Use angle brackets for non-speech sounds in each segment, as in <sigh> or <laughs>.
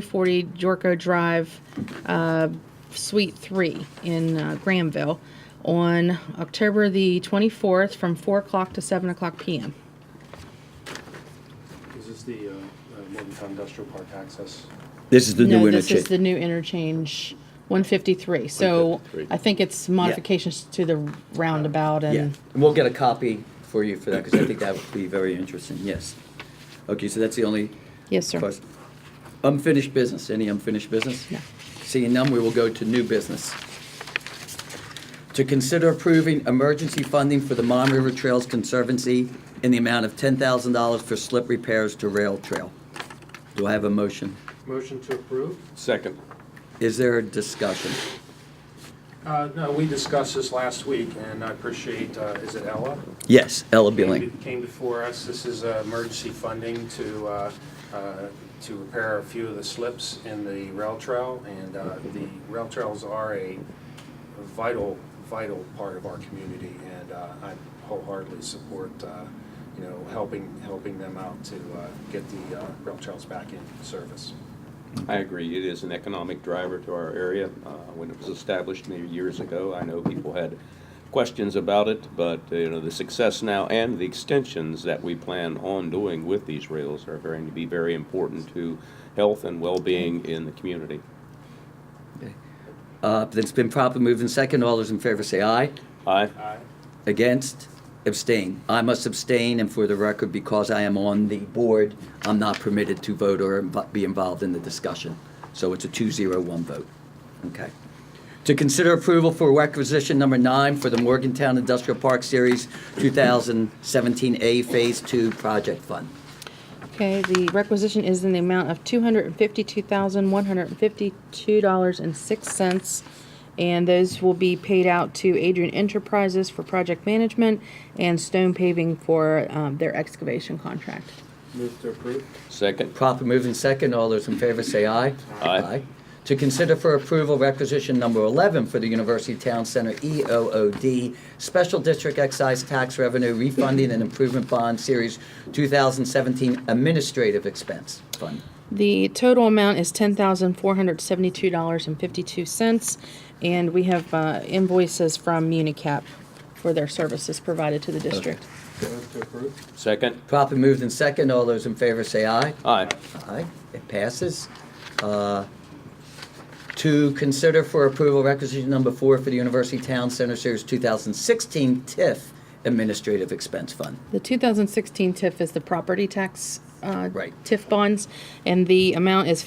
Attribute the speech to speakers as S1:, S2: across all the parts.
S1: 2040 Jorko Drive, uh, Suite 3 in uh, Grahamville on October the 24th from 4 o'clock to 7 o'clock PM.
S2: Is this the uh, uh, Morgantown Industrial Park access?
S3: This is the new
S1: No, this is the
S3: interchange.
S1: new interchange, 153. So
S3: 153.
S1: I think it's modifications to the roundabout
S3: Yeah,
S1: and
S3: and we'll get a copy for you for that, because I think that would be very interesting, yes. Okay, so that's the only
S1: Yes, sir.
S3: question. Unfinished business, any unfinished business?
S1: No.
S3: Seeing none, we will go to new business. To consider approving emergency funding for the Mon River Trails Conservancy in the amount of ten thousand dollars for slip repairs to rail trail. Do I have a motion?
S2: Motion to approve?
S4: Second.
S3: Is there a discussion?
S2: Uh, No, we discussed this last week, and I appreciate, uh, is it Ella?
S3: Yes, Ella Billing.
S2: Came- Came before us. This is uh, emergency funding to, uh, uh, to repair a few of the slips in the rail trail, and uh, the rail trails are a vital, vital part of our community, and uh, I wholeheartedly support, uh, you know, helping, helping them out to uh, get the uh, rail trails back in service.
S4: I agree, it is an economic driver to our area. Uh, When it was established many years ago, I know people had questions about it, but, uh, you know, the success now and the extensions that we plan on doing with these rails are going to be very important to health and well-being in the community.
S3: Uh, it's been properly moved in second. All those in favor say aye.
S4: Aye.
S2: Aye.
S3: Against? Abstain. I must abstain, and for the record, because I am on the board, I'm not permitted to vote or inv- be involved in the discussion. So it's a two-zero-one vote. Okay. To consider approval for requisition number nine for the Morgantown Industrial Park Series 2017A Phase Two Project Fund.
S1: Okay, the requisition is in the amount of two hundred and fifty-two thousand, one hundred and fifty-two dollars and six cents. And those will be paid out to Adrian Enterprises for project management and Stone Paving for, um, their excavation contract.
S2: Move to approve?
S4: Second?
S3: Proper move in second. All those in favor say aye.
S4: Aye.
S3: To consider for approval requisition number 11 for the University Town Center E EOOD Special District Excise Tax Revenue Refunding and Improvement Bond Series 2017 Administrative Expense Fund.
S1: The total amount is ten thousand, four hundred and seventy-two dollars and fifty-two cents. And we have, uh, invoices from Unicap for their services provided to the district.
S2: Move to approve?
S4: Second?
S3: Proper moved in second. All those in favor say aye.
S4: Aye.
S3: Aye, it passes. Uh, To consider for approval requisition number four for the University Town Center Series 2016 TIF Administrative Expense Fund.
S1: The 2016 TIF is the property tax uh,
S3: Right.
S1: TIF bonds, and the amount is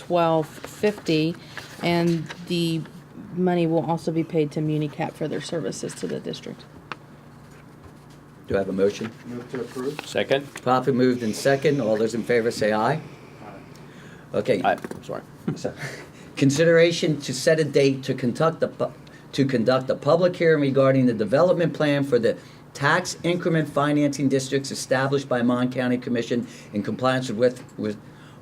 S1: 15412 and the money will also be paid to MuniCap for their services to the district.
S3: Do I have a motion?
S2: Move to approve?
S4: Second?
S3: Properly moved in second. All those in favor say aye. Okay.
S4: Aye, sorry.
S3: So, Consideration to set a date to conduct the, pu- to conduct a public hearing regarding the development plan for the tax increment financing districts established by Mon County Commission in compliance with, West- with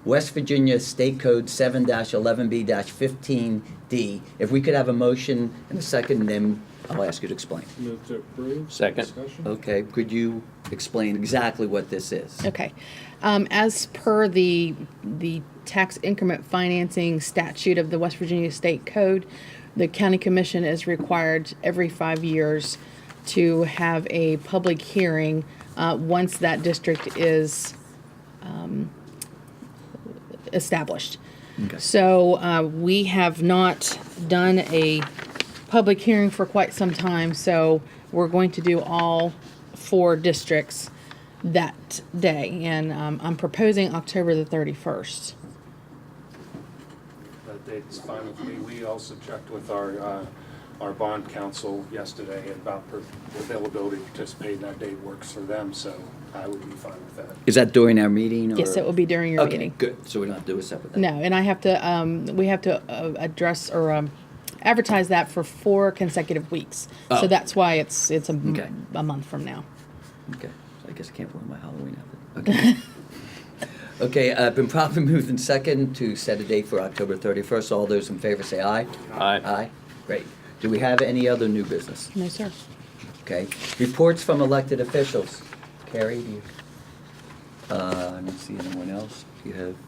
S3: West Virginia State Code seven eleven B fifteen D. If we could have a motion and a second, then I'll ask you to explain.
S2: Move to approve.
S4: Second.
S2: Discussion?
S3: Okay, could you explain exactly what this is?
S1: Okay. Um, as per the, the tax increment financing statute of the West Virginia State Code, the county commission is required every five years to have a public hearing, uh, once that district is, um, established.
S3: Okay.
S1: So, uh, we have not done a public hearing for quite some time, so we're going to do all four districts that day, and um, I'm proposing October the 31st.
S2: That date's fine with me. We also checked with our, uh, our bond counsel yesterday about per- availability to participate, and that date works for them, so I would be fine with that.
S3: Is that during our meeting?
S1: Yes,
S3: or-
S1: it will be during your
S3: Okay,
S1: meeting.
S3: good. So we don't have to do a separate.
S1: No, and I have to, um, we have to uh, address or um, advertise that for four consecutive weeks. So
S3: Oh.
S1: that's why it's, it's a m-
S3: Okay.
S1: a month from now.
S3: Okay, so I guess I can't wear my Halloween
S1: <laughs>
S3: outfit. Okay. Okay, I've been properly <laughs> moved in second to set a date for October 31st. All those in favor say aye.
S4: Aye.
S3: Aye, great. Do we have any other new business?
S1: No, sir.
S3: Okay, reports from elected officials. Carrie, do you, uh, I don't see anyone else. Do you have